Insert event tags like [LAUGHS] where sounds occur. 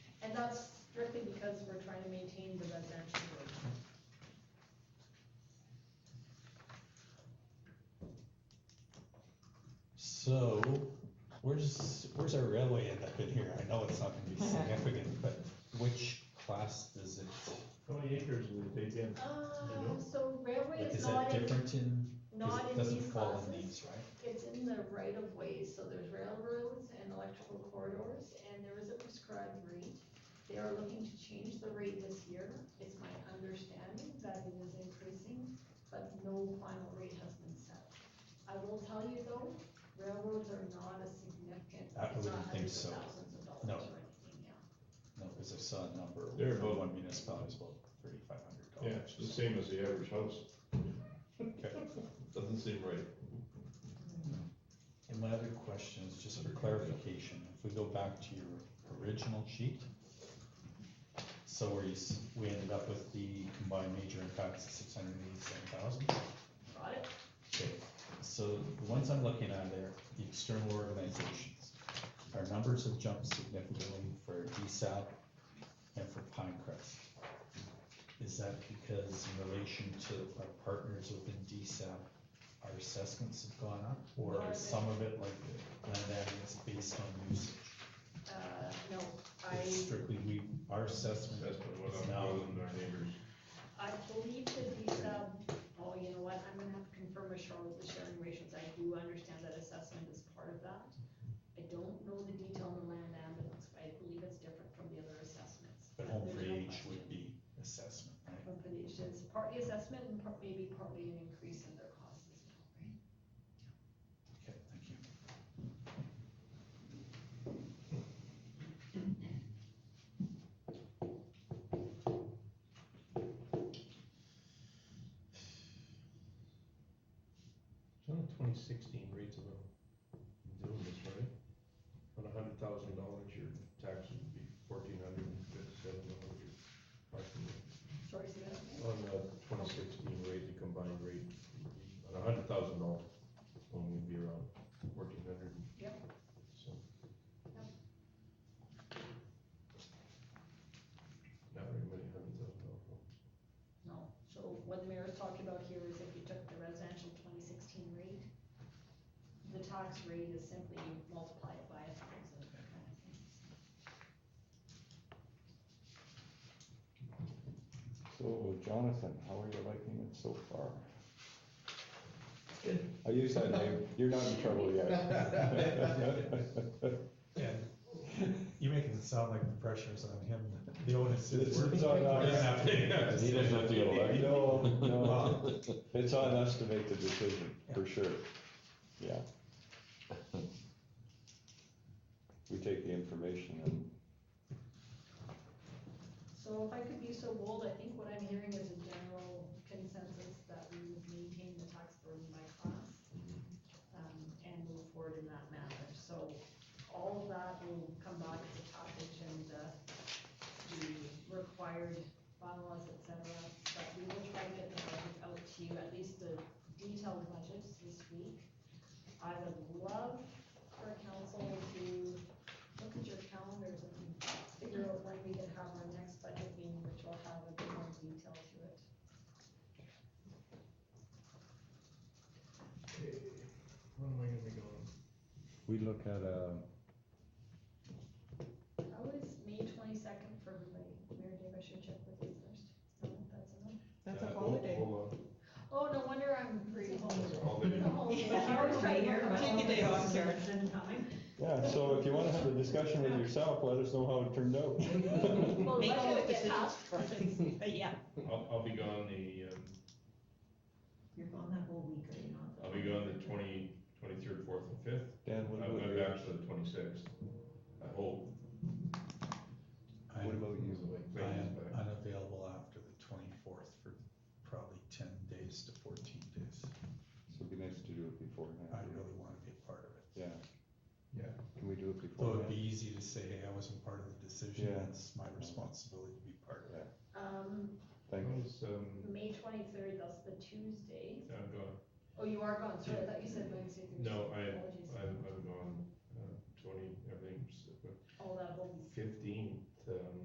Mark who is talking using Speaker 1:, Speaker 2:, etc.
Speaker 1: trying to maintain the residential road.
Speaker 2: So, where's, where's our railway end up in here? I know it's not gonna be significant, but which class does it,
Speaker 3: How many acres will it take in?
Speaker 1: Uh, so railway
Speaker 2: like,
Speaker 1: is
Speaker 2: is
Speaker 1: not
Speaker 2: that
Speaker 1: in,
Speaker 2: different in, cause
Speaker 1: not
Speaker 2: it
Speaker 1: in
Speaker 2: doesn't
Speaker 1: these
Speaker 2: fall in
Speaker 1: classes.
Speaker 2: these, right?
Speaker 1: It's in the right of ways, so there's railroads and electrical corridors, and there is a prescribed rate. They are looking to change the rate this year. It's my understanding that it is increasing, but no final rate has been set. I will tell you though, railroads are not a significant,
Speaker 2: I
Speaker 1: it's not
Speaker 2: wouldn't think
Speaker 1: hundreds
Speaker 2: so.
Speaker 1: of thousands of dollars
Speaker 2: No.
Speaker 1: or anything, yeah.
Speaker 2: No, cause I saw a number,
Speaker 3: They're
Speaker 2: from
Speaker 3: about-
Speaker 2: one municipality is about thirty-five hundred
Speaker 3: Yeah,
Speaker 2: dollars.
Speaker 3: it's the same as the average house. [LAUGHS] Doesn't seem right.
Speaker 2: And my other question is just for clarification, if we go back to your original sheet. So where you, s- we ended up with the combined major impacts of six hundred eighty-seven thousand.
Speaker 1: Got it?
Speaker 2: Okay, so the ones I'm looking at are the external organizations. Our numbers have jumped significantly for E DSAP and for Pinecrest. Is that because in relation to our partners within DSAP, our assessments have gone up? Or is some of it like the land values based on usage?
Speaker 1: Uh, no,
Speaker 2: It's
Speaker 1: I,
Speaker 2: Strictly, we, our assessment
Speaker 3: That's what
Speaker 2: is
Speaker 3: I'm
Speaker 2: now,
Speaker 3: calling our neighbors.
Speaker 1: I believe that these, um, oh, you know what, I'm gonna have to confirm with Cheryl with the sharing ratios, I do understand that assessment is part of that. I don't know the detail on the land ambulance, but I believe it's different from the other assessments.
Speaker 2: but home for
Speaker 1: There's no
Speaker 2: age
Speaker 1: question.
Speaker 2: would be assessment, right?
Speaker 1: Home for the age, it's partly assessment and part, maybe partly an increase in their costs as well, right?
Speaker 2: Okay, thank you.
Speaker 3: twenty sixteen rates of doing this, right? On a hundred thousand dollars, your taxes would be fourteen hundred and fifty-seven dollars.
Speaker 1: Sorry, say that again?
Speaker 3: On the twenty sixteen rate, the combined rate, on a hundred thousand dollars, only would be around fourteen hundred.
Speaker 1: Yep.
Speaker 3: So.
Speaker 1: Yep.
Speaker 3: Not very many hundred thousand dollars.
Speaker 1: No, so what the mayor is talking about here is if you took the residential twenty sixteen rate, the tax rate is simply multiplied by a thousand. kind of thing.
Speaker 4: So Jonathan, how are you liking it so far? I use that name, you're not in trouble yet.
Speaker 2: [LAUGHS]
Speaker 5: And you're making it sound like the pressure's on him, the onus
Speaker 4: It's-
Speaker 5: is. we're-
Speaker 4: it's on
Speaker 5: we're
Speaker 4: us. [LAUGHS]
Speaker 5: not paying us.
Speaker 4: [LAUGHS] He doesn't feel like it. No, no, [LAUGHS]
Speaker 5: Wow.
Speaker 4: it's on us to make the decision, for sure, yeah. We take the information and
Speaker 1: So if I could be so bold, I think what I'm hearing is a general consensus that we would maintain the tax burden by class, um, and move forward in that manner, so all of that will come back as a package and, uh, the required bylaws, et cetera, but we will try to get the budget out to you, at least the detailed budgets this week. I would love for council to look at your calendars and figure out when we can have our next budget meeting, which will have a bit more detail to it.
Speaker 3: Okay, when Eh, am I gonna be going?
Speaker 4: we look at, uh,
Speaker 1: How is May twenty-second for everybody? Mayor Dave, I should check with you first. No, that's enough.
Speaker 6: That's
Speaker 3: Uh,
Speaker 6: a
Speaker 3: hold-
Speaker 6: holiday.
Speaker 3: Hold
Speaker 1: Oh, no wonder I'm free.
Speaker 3: on, it's a holiday.
Speaker 1: I was right [LAUGHS] here.
Speaker 6: Take a day off, Karen.
Speaker 4: yeah, so if you wanna have a discussion with yourself, let us know how it turned [LAUGHS] out.
Speaker 1: Well,
Speaker 6: Make all
Speaker 1: budget
Speaker 6: the
Speaker 1: will get
Speaker 6: decisions
Speaker 1: passed. [LAUGHS]
Speaker 6: first. Yeah. [LAUGHS]
Speaker 3: I'll, I'll be gone the, um,
Speaker 7: You're gone that whole week, are you not?
Speaker 3: I'll be gone the twenty, twenty-third, fourth, and fifth,
Speaker 4: Dan,
Speaker 3: I'm
Speaker 4: what about
Speaker 3: I'm
Speaker 4: you?
Speaker 3: back to the twenty-sixth, I hope.
Speaker 2: I'm-
Speaker 4: What about you?
Speaker 2: I am
Speaker 3: Clayton's back.
Speaker 2: unavailable after the twenty-fourth for probably ten days to fourteen days.
Speaker 4: So it'd be nice to do it
Speaker 2: I
Speaker 4: beforehand,
Speaker 2: really wanna be a part of it.
Speaker 4: yeah.
Speaker 3: Yeah.
Speaker 4: Can we do it
Speaker 2: Though
Speaker 4: beforehand?
Speaker 2: it'd be easy to say, hey, I wasn't part of the decision,
Speaker 4: Yeah.
Speaker 2: it's my responsibility to be part of it.
Speaker 1: Um,
Speaker 4: Thank you.
Speaker 3: How's, um,
Speaker 1: May twenty-third, that's the Tuesday.
Speaker 3: I'm gone,
Speaker 1: Oh, you are gone, sorry, I thought you said Wednesday. Thursday.
Speaker 3: no, I,
Speaker 1: Apologies.
Speaker 3: I'm, I'm gone, uh, twenty, everything's
Speaker 1: Oh, that whole,
Speaker 3: fifteen,